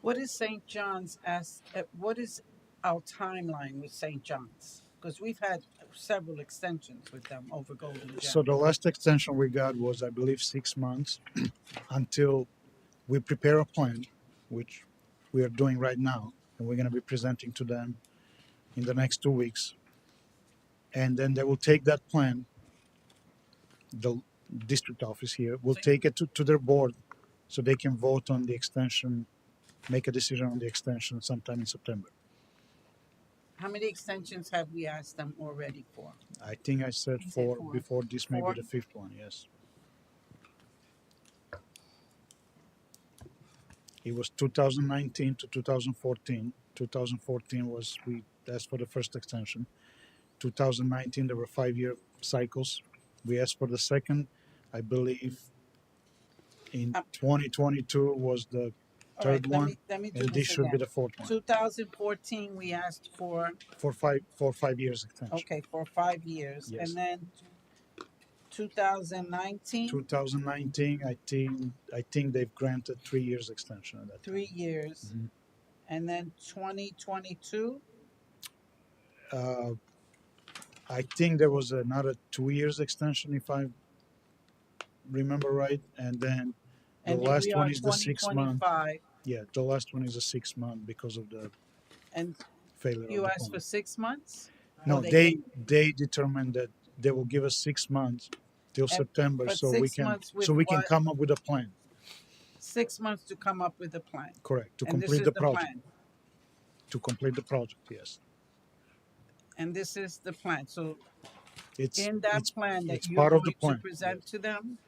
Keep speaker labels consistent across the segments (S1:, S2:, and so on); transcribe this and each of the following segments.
S1: What is St. John's as, uh, what is our timeline with St. John's? Because we've had several extensions with them over Golden
S2: So
S1: Gem.
S2: the last extension we got was, I believe, six months until we prepare a plan, which we are doing right now, and we're gonna be presenting to them in the next two weeks. And then they will take that plan, the district office here will
S1: So-
S2: take it to, to their board so they can vote on the extension, make a decision on the extension sometime in September.
S1: How many extensions have we asked them already for?
S2: I think I said
S1: You said
S2: four
S1: four.
S2: before, this may
S1: Four?
S2: be the fifth one, yes. It was two thousand nineteen to two thousand fourteen. Two thousand fourteen was, we asked for the first extension. Two thousand nineteen, there were five-year cycles. We asked for the second, I believe. In
S1: Uh,
S2: twenty twenty-two Um, was the
S1: All right,
S2: third
S1: let
S2: one,
S1: me, let me do
S2: and this
S1: this
S2: should be
S1: again.
S2: the fourth one,
S1: Two thousand fourteen, we asked for,
S2: for five, for five years extension.
S1: okay, for five years,
S2: Yes.
S1: and then two thousand nineteen,
S2: 2019, I think, I think they've granted three years extension at that time.
S1: three years,
S2: Mhm.
S1: and then twenty twenty-two,
S2: Uh, I think there was another two years extension if I remember right, and then the
S1: and here
S2: last
S1: we are
S2: one is the
S1: twenty
S2: six month.
S1: twenty-five,
S2: Yeah, the last one is a six month because of the
S1: and
S2: failure of
S1: you
S2: the
S1: asked for
S2: pump.
S1: six months?
S2: No,
S1: Or
S2: they, they determined that they will give us six months till
S1: And-
S2: September,
S1: but
S2: so we
S1: six
S2: can,
S1: months with
S2: so we can
S1: what?
S2: come up with a plan,
S1: Six months to come up with a plan,
S2: correct, to
S1: and this
S2: complete
S1: is
S2: the
S1: the
S2: project,
S1: plan,
S2: to complete the project, yes.
S1: and this is the plan, so
S2: It's,
S1: in that
S2: it's,
S1: plan that
S2: it's
S1: you're
S2: part of the
S1: going to
S2: plan,
S1: present to them,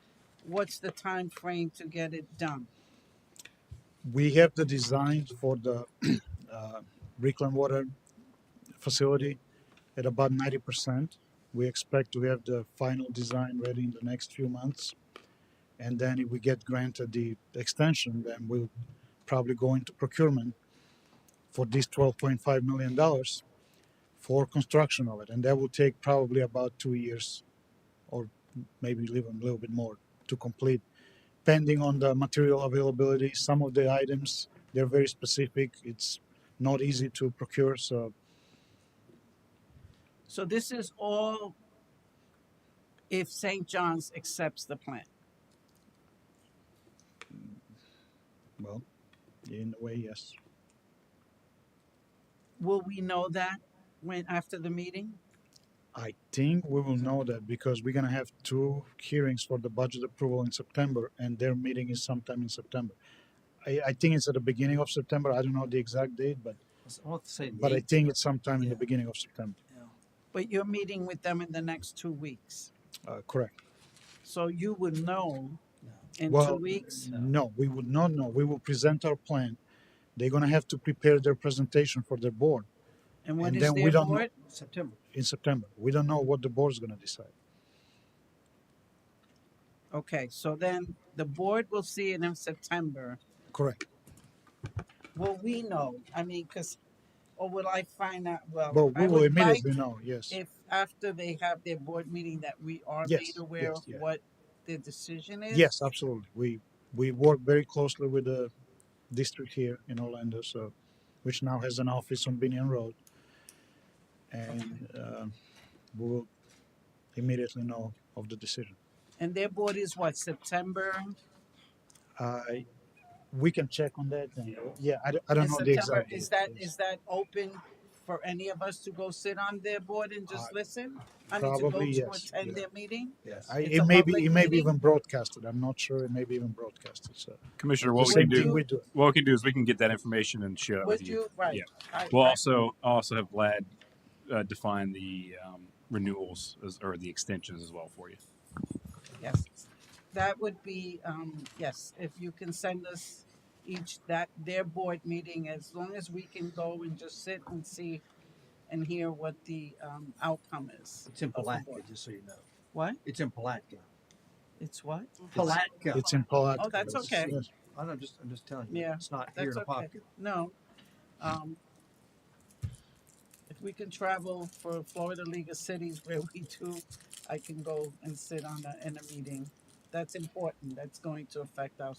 S1: what's the time frame to get it done?
S2: we have the design for the uh, reclaim water facility at about 90%. We expect to have the final design ready in the next few months. And then if we get granted the extension, then we'll probably go into procurement for this $12.5 million for construction of it. And that will take probably about two years or maybe even a little bit more to complete depending on the material availability. Some of the items they're very specific. It's not easy to procure, so
S1: So this is all if St. John's accepts the plan.
S2: well, in a way, yes.
S1: Will we know that when, after the meeting?
S2: I think we will know that because we're gonna have two hearings for the budget approval in September, and their meeting is sometime in September. I, I think it's at the beginning of September. I don't know the exact date, but
S3: I want to say,
S2: but I
S3: eight,
S2: think it's sometime in the
S3: Yeah.
S2: beginning of September.
S3: yeah.
S1: But you're meeting with them in the next two weeks.
S2: Uh, correct.
S1: So you would know
S3: Yeah.
S1: in two
S2: Well,
S1: weeks.
S3: No.
S2: No, we would not know. We will present our plan. They're gonna have to prepare their presentation for their board.
S1: And when
S2: and
S1: is
S2: then we
S1: their
S2: don't know.
S1: board?
S3: September.
S2: in September. We don't know what the board's going to decide.
S1: Okay, so then the board will see it in September.
S2: Correct.
S1: Will we know? I mean, because, or will I find out? Well,
S2: But we
S1: I
S2: will
S1: would like
S2: immediately know, yes.
S1: if after they have their board meeting that we are
S2: Yes,
S1: made aware
S2: yes,
S1: of
S2: yeah.
S1: what their decision is.
S2: Yes, absolutely. We, we work very closely with the district here in Orlando, so, which now has an office on Binion Road. And um, we will immediately know of the decision.
S1: And their board is what, September?
S2: I, we can check on that and, yeah, I don't, I don't
S1: In
S2: know the
S1: September,
S2: exact.
S1: is
S2: date,
S1: that,
S2: yes.
S1: is that open for any of us to go sit on their board and just
S2: Uh,
S1: listen? I mean, to go
S2: probably,
S1: to
S2: yes, yeah.
S1: attend their meeting?
S2: Yeah, I,
S1: it's
S2: it
S1: a
S2: may be,
S1: public
S2: it may be
S1: meeting?
S2: even broadcasted. I'm not sure. It may be even broadcasted, so.
S4: Commissioner,
S2: The
S4: what we
S2: same
S4: can
S2: thing
S4: do,
S2: we do.
S4: what we can do is we can get that information and share that with
S1: Would
S4: you.
S1: you, right?
S4: Yeah.
S1: I-
S4: We'll
S1: I-
S4: also, I'll also have Vlad uh, define the um, renewals as, or the extensions as well for you.
S1: Yes, that would be, um, yes, if you can send us each that, their board meeting, as long as we can go and just sit and see and hear what the, um, outcome is.
S3: It's in
S1: of the
S3: Palatka,
S1: board.
S3: just so you know.
S1: What?
S3: It's in Palatka.
S1: It's what?
S3: Palatka.
S2: It's in Palatka.
S1: Oh, that's
S2: Yes,
S1: okay.
S2: yes.
S3: I know, just, I'm just telling you.
S1: Yeah,
S3: It's not here
S1: That's
S3: in
S1: okay.
S3: Apopka.
S1: No. Um, if we can travel for Florida League of Cities where we do, I can go and sit on a, in a meeting. That's important. That's going to affect our